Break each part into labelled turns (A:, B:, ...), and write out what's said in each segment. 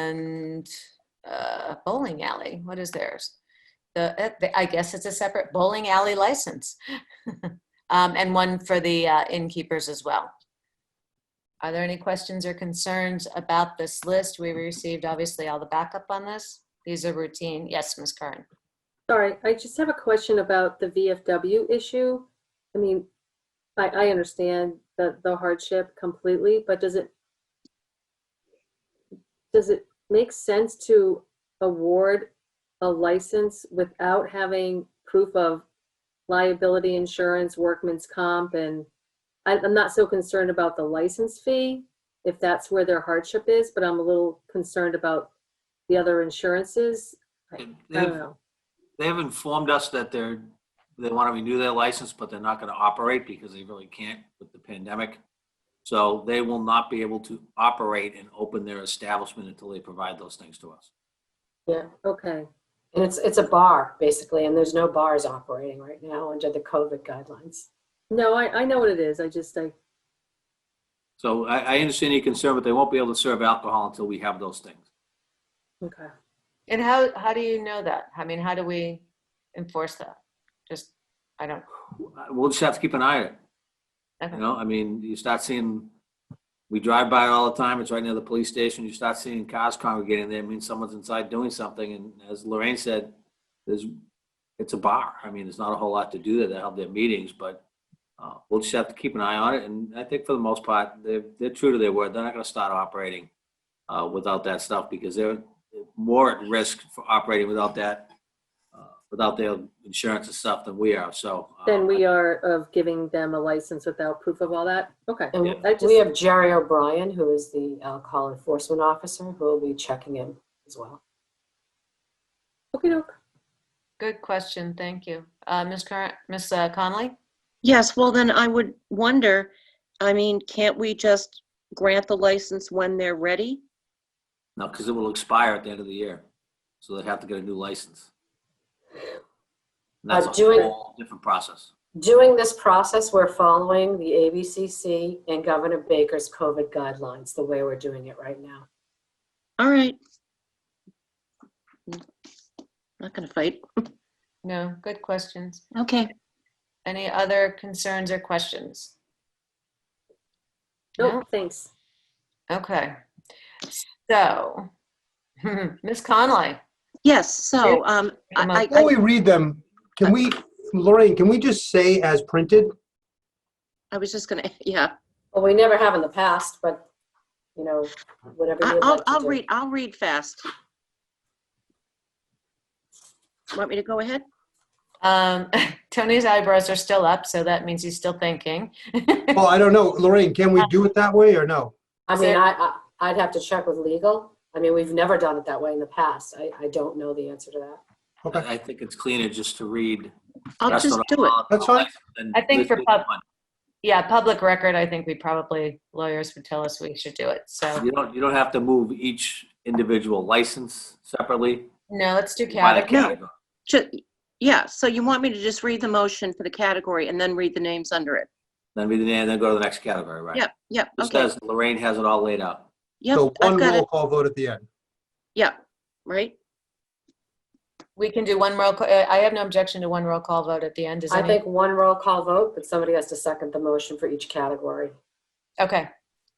A: named uh, bowling alley. What is theirs? The, uh, the- I guess it's a separate bowling alley license. Um, And one for the uh, innkeepers as well. Are there any questions or concerns about this list? We received obviously all the backup on this. These are routine. Yes, Ms. Curran.
B: Sorry, I just have a question about the VFW issue. I mean, I, I understand the, the hardship completely, but does it, does it make sense to award a license without having proof of liability insurance, workman's comp, and I, I'm not so concerned about the license fee, if that's where their hardship is, but I'm a little concerned about the other insurances. I I don't
C: They've,
B: know.
C: they've informed us that they're, they want to renew their license, but they're not going to operate because they really can't with the pandemic. So they will not be able to operate and open their establishment until they provide those things to us.
D: Yeah,
B: Okay.
D: and it's, it's a bar, basically, and there's no bars operating right now under the COVID guidelines.
B: No, I, I know what it is. I just, I,
C: So I, I understand your concern, but they won't be able to serve alcohol until we have those things.
B: okay.
A: And how, how do you know that? I mean, how do we enforce that? Just, I don't,
C: Uh, We'll just have to keep an eye on it.
A: Okay.
C: You know, I mean, you start seeing, we drive by it all the time. It's right near the police station. You start seeing cars congregating there. It means someone's inside doing something. And as Lorraine said, there's, it's a bar. I mean, there's not a whole lot to do there. They have their meetings, but uh, we'll just have to keep an eye on it. And I think for the most part, they're, they're true to their word. They're not going to start operating uh, without that stuff because they're more at risk for operating without that, uh, without their insurance and stuff than we are. So. uh,
B: Then we are of giving them a license without proof of all that? Okay.
D: And
C: Yeah.
B: I just-
D: we have Jerry O'Brien, who is the alcohol enforcement officer, who will be checking in as well.
B: Okay, doke.
A: good question. Thank you. Uh, Ms. Curran, uh, Ms. Connolly?
E: Yes, well, then I would wonder, I mean, can't we just grant the license when they're ready?
C: No, because it will expire at the end of the year. So they have to get a new license. And
D: Uh,
C: That's a
D: doing-
C: whole different process.
D: Doing this process, we're following the ABCC and Governor Baker's COVID guidelines, the way we're doing it right now.
E: All right. Not gonna fight.
A: No, good questions.
E: Okay.
A: Any other concerns or questions?
B: Nope, thanks.
A: No? Okay. So, Ms. Conley,
E: Yes, so, um,
A: Come on.
E: I,
F: Before
E: I,
F: we read them,
E: I-
F: can we, Lorraine, can we just say as printed?
E: I was just gonna, yeah,
D: Well, we never have in the past, but, you know, whatever
E: I-
D: you'd
E: I'll,
D: like to
E: I'll
D: do.
E: read, I'll read fast. Want me to go ahead?
A: um, Tony's eyebrows are still up, so that means he's still thinking.
F: Well, I don't know. Lorraine, can we do it that way or no?
D: I
A: Is
D: mean,
A: there-
D: I, I- I'd have to check with legal. I mean, we've never done it that way in the past. I, I don't know the answer to that.
F: Okay.
C: I I think it's cleaner just to read.
E: I'll just
C: restaurant
E: do it.
C: alcohol
F: That's fine.
C: license than
A: I think for
C: listed
A: pub-
C: one.
A: Yeah, public record, I think we probably, lawyers would tell us we should do it. So,
C: You don't, you don't have to move each individual license separately.
A: no, let's do
C: by the
A: category.
E: No.
C: category.
E: Ju- Yeah, so you want me to just read the motion for the category and then read the names under it?
C: Then read the name, then go to the next category, right?
E: Yep, yep,
C: It
E: okay.
C: says Lorraine has it all laid out.
E: Yep,
F: So
E: I've
F: one
E: got it,
F: roll call vote at the end.
E: yeah, right?
A: We can do one roll, ca- uh, I have no objection to one roll call vote at the end. Does
D: I
A: any?
D: think one roll call vote, but somebody has to second the motion for each category.
A: Okay,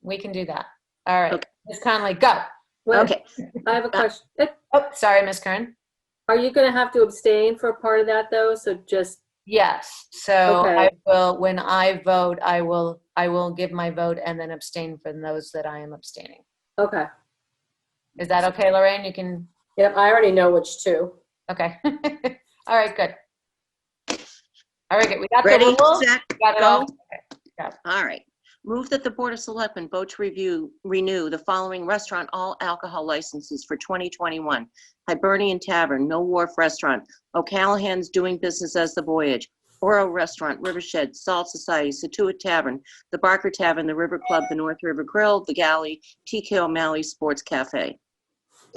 A: we can do that. All right.
E: Okay.
A: Ms. Conley, go.
B: Well,
E: Okay,
B: I have a question. Eh,
A: Oh, sorry, Ms. Kern.
B: Are you gonna have to abstain for a part of that though? So just,
A: Yes, so
B: Okay.
A: I will, when I vote, I will, I will give my vote and then abstain from those that I am abstaining.
B: okay.
A: Is that okay, Lorraine? You can,
D: Yep, I already know which two.
A: okay. All right, good. All right, good. We got the
E: ready,
A: rules?
E: set,
A: Got it
E: go?
A: all?
E: All right. Move that the Board of Selectmen vote to review, renew the following restaurant all alcohol licenses for 2021. Hibernian Tavern, No Wharf Restaurant, O'Callahan's Doing Business as the Voyage, Oro Restaurant, Rivershed, Salt Society, Situate Tavern, The Barker Tavern, The River Club, The North River Grill, The Galley, TK O'Malley Sports Cafe.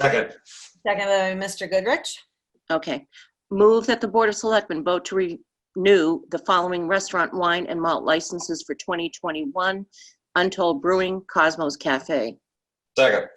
A: Second by Mr. Goodrich.
E: Okay. Move that the Board of Selectmen vote to renew the following restaurant wine and malt licenses for 2021. Untold Brewing, Cosmos Cafe.
G: Second.